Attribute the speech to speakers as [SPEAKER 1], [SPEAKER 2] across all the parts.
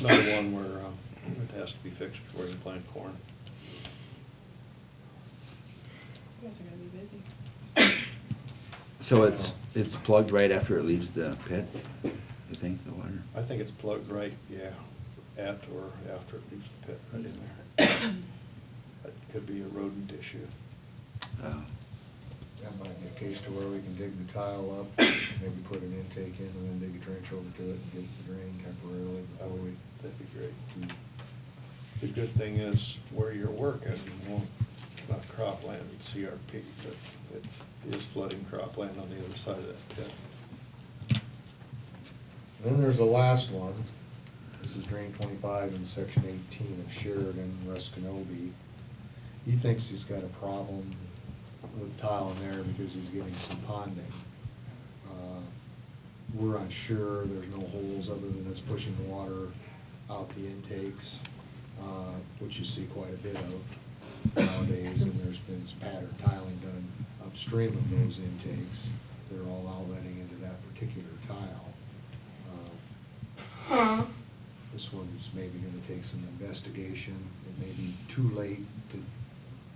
[SPEAKER 1] Another one where um, it has to be fixed before you can plant corn.
[SPEAKER 2] You guys are gonna be busy.
[SPEAKER 3] So it's, it's plugged right after it leaves the pit, you think, the water?
[SPEAKER 1] I think it's plugged right, yeah, at or after it leaves the pit, right in there. That could be a rodent issue.
[SPEAKER 3] Oh.
[SPEAKER 4] That might be a case to where we can dig the tile up, maybe put an intake in, and then dig a trench over to it and get the drain
[SPEAKER 1] I
[SPEAKER 4] temporarily before we
[SPEAKER 1] would, that'd be great.
[SPEAKER 4] do.
[SPEAKER 1] The good thing is where you're working, you won't, it's not cropland, it's CRP, but it's, it is flooding cropland on the other side of that pit.
[SPEAKER 4] Then there's the last one. This is drain twenty-five in section eighteen of Sheridan, Ruskinobi. He thinks he's got a problem with tile in there because he's getting some ponding. Uh, We're unsure, there's no holes other than it's pushing the water out the intakes, uh, which you see quite a bit of nowadays, and there's been some pattern tiling done upstream of those intakes that are all outletting into that particular tile. uh, Um, This one's maybe gonna take some investigation, it may be too late to,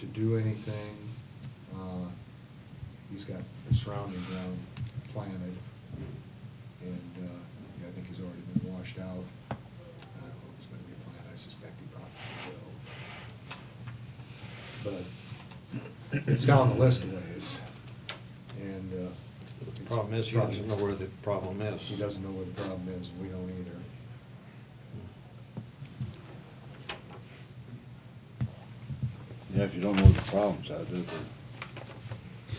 [SPEAKER 4] to do anything. Uh, He's got the surrounding ground planted, and, uh, yeah, I think he's already been washed out. I don't know if it's gonna be planted, I suspect he probably will. But it's down the list a ways, and, uh.
[SPEAKER 1] The
[SPEAKER 4] it's-
[SPEAKER 1] problem is, he doesn't know where the problem is.
[SPEAKER 4] he doesn't know where the problem is, we don't either.
[SPEAKER 5] Yeah, if you don't know what the problem's out there,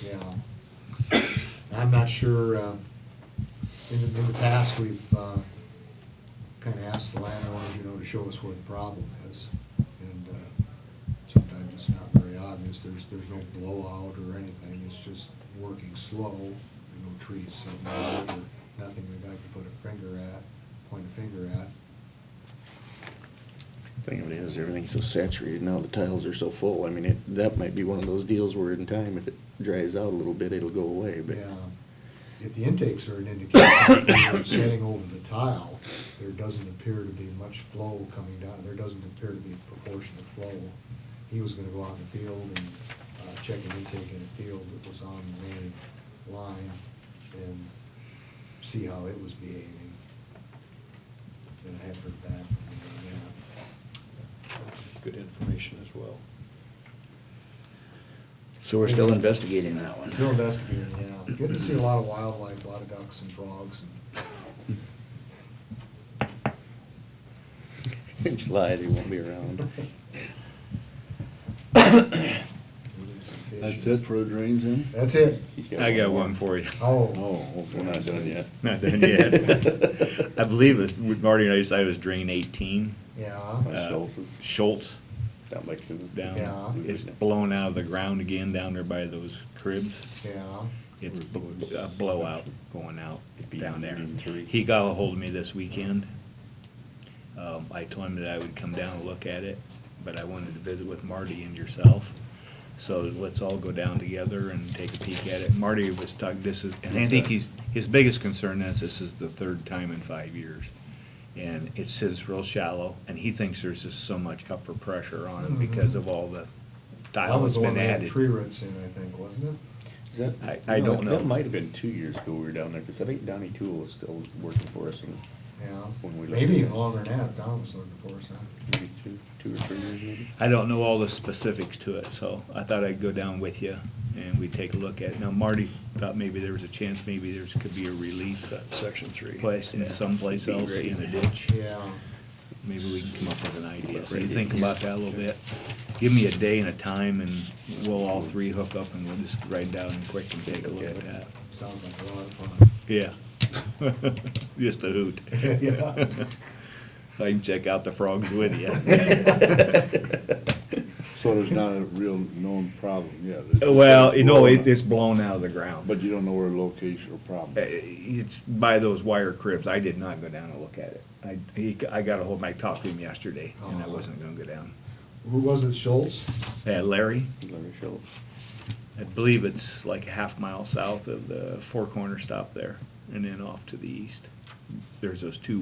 [SPEAKER 4] Yeah. I'm not sure, uh, in, in the past, we've, uh, kinda asked the landowners, you know, to show us where the problem is. And, uh, sometimes it's not very obvious, there's, there's no blowout or anything, it's just working slow. There are No trees, so, nothing that I can put a finger at, point a finger at.
[SPEAKER 6] Thing of it is, everything's so saturated now, the tiles are so full, I mean, it, that might be one of those deals where in time, if it dries out a little bit, it'll go away, but.
[SPEAKER 4] Yeah, if the intakes are an indication of where it's setting over the tile, there doesn't appear to be much flow coming down, there doesn't appear to be proportionate flow. He was gonna go out in the field and, uh, check an intake in a field that was on the main line and see how it was behaving. And I haven't heard back from him on that.
[SPEAKER 1] Good information as well.
[SPEAKER 3] So we're still investigating that one?
[SPEAKER 4] Still investigating, yeah. Good to see a lot of wildlife, a lot of ducks and frogs and
[SPEAKER 6] In July, they won't be around.
[SPEAKER 4] even some fishes.
[SPEAKER 5] that's it for the drains in?
[SPEAKER 4] That's it.
[SPEAKER 7] I got one for you.
[SPEAKER 4] Oh,
[SPEAKER 5] Oh, we're not done yet.
[SPEAKER 7] Not done yet. I believe it, Marty and I decided it was drain eighteen.
[SPEAKER 4] yeah.
[SPEAKER 5] By
[SPEAKER 7] Uh,
[SPEAKER 5] Schultz's?
[SPEAKER 7] Schultz
[SPEAKER 5] Not like the
[SPEAKER 4] Yeah.
[SPEAKER 7] down, it's blown out of the ground again down there by those cribs.
[SPEAKER 4] Yeah,
[SPEAKER 7] It's bl- a blowout going out
[SPEAKER 5] It'd be
[SPEAKER 7] down there.
[SPEAKER 5] in three.
[SPEAKER 7] He got a hold of me this weekend. Um, I told him that I would come down and look at it, but I wanted to visit with Marty and yourself. So let's all go down together and take a peek at it. Marty was talking, this is, and I think he's, his biggest concern is this is the third time in five years. And it sits real shallow, and he thinks there's just so much upper pressure on it because of all the
[SPEAKER 4] that
[SPEAKER 7] tile
[SPEAKER 4] Mm-hmm. was
[SPEAKER 7] that's
[SPEAKER 4] the one
[SPEAKER 7] been
[SPEAKER 4] that had
[SPEAKER 7] added.
[SPEAKER 4] tree roots in, I think, wasn't it?
[SPEAKER 5] Is that-
[SPEAKER 7] I- I don't know.
[SPEAKER 5] That might have been two years ago we were down there, because I think Donnie Tool was still working for us, and
[SPEAKER 4] Yeah,
[SPEAKER 5] When we
[SPEAKER 4] maybe
[SPEAKER 5] looked.
[SPEAKER 4] even longer than that, if Don was looking for us, huh?
[SPEAKER 5] maybe two, two or three years maybe?
[SPEAKER 7] I don't know all the specifics to it, so I thought I'd go down with you and we'd take a look at it. Now Marty thought maybe there was a chance, maybe there's, could be a relief
[SPEAKER 1] That's section three.
[SPEAKER 7] place in someplace else in the ditch.
[SPEAKER 4] Yeah,
[SPEAKER 7] Maybe we can come up with an idea. So
[SPEAKER 5] Right
[SPEAKER 7] you
[SPEAKER 5] in
[SPEAKER 7] think
[SPEAKER 5] here.
[SPEAKER 7] about that a little bit. Give me a day and a time and we'll all three hook up and we'll just ride down and quick and take a look at that.
[SPEAKER 4] sounds like a lot of fun.
[SPEAKER 7] Yeah. Just a hoot.
[SPEAKER 4] Yeah.
[SPEAKER 7] I can check out the frogs with you.
[SPEAKER 5] So there's not a real known problem yet? It's just
[SPEAKER 7] Well, you know, it,
[SPEAKER 5] blown
[SPEAKER 7] it's blown out of the ground.
[SPEAKER 5] out. But you don't know where the location or problem
[SPEAKER 7] Uh,
[SPEAKER 5] is?
[SPEAKER 7] It's by those wire cribs. I did not go down and look at it. I, he, I got ahold, I talked to him yesterday and I
[SPEAKER 4] Uh-huh.
[SPEAKER 7] wasn't gonna go down.
[SPEAKER 4] Who was it, Schultz?
[SPEAKER 7] Uh, Larry,
[SPEAKER 5] Larry Schultz.
[SPEAKER 7] I believe it's like a half mile south of the four corner stop there and then off to the east. There's those two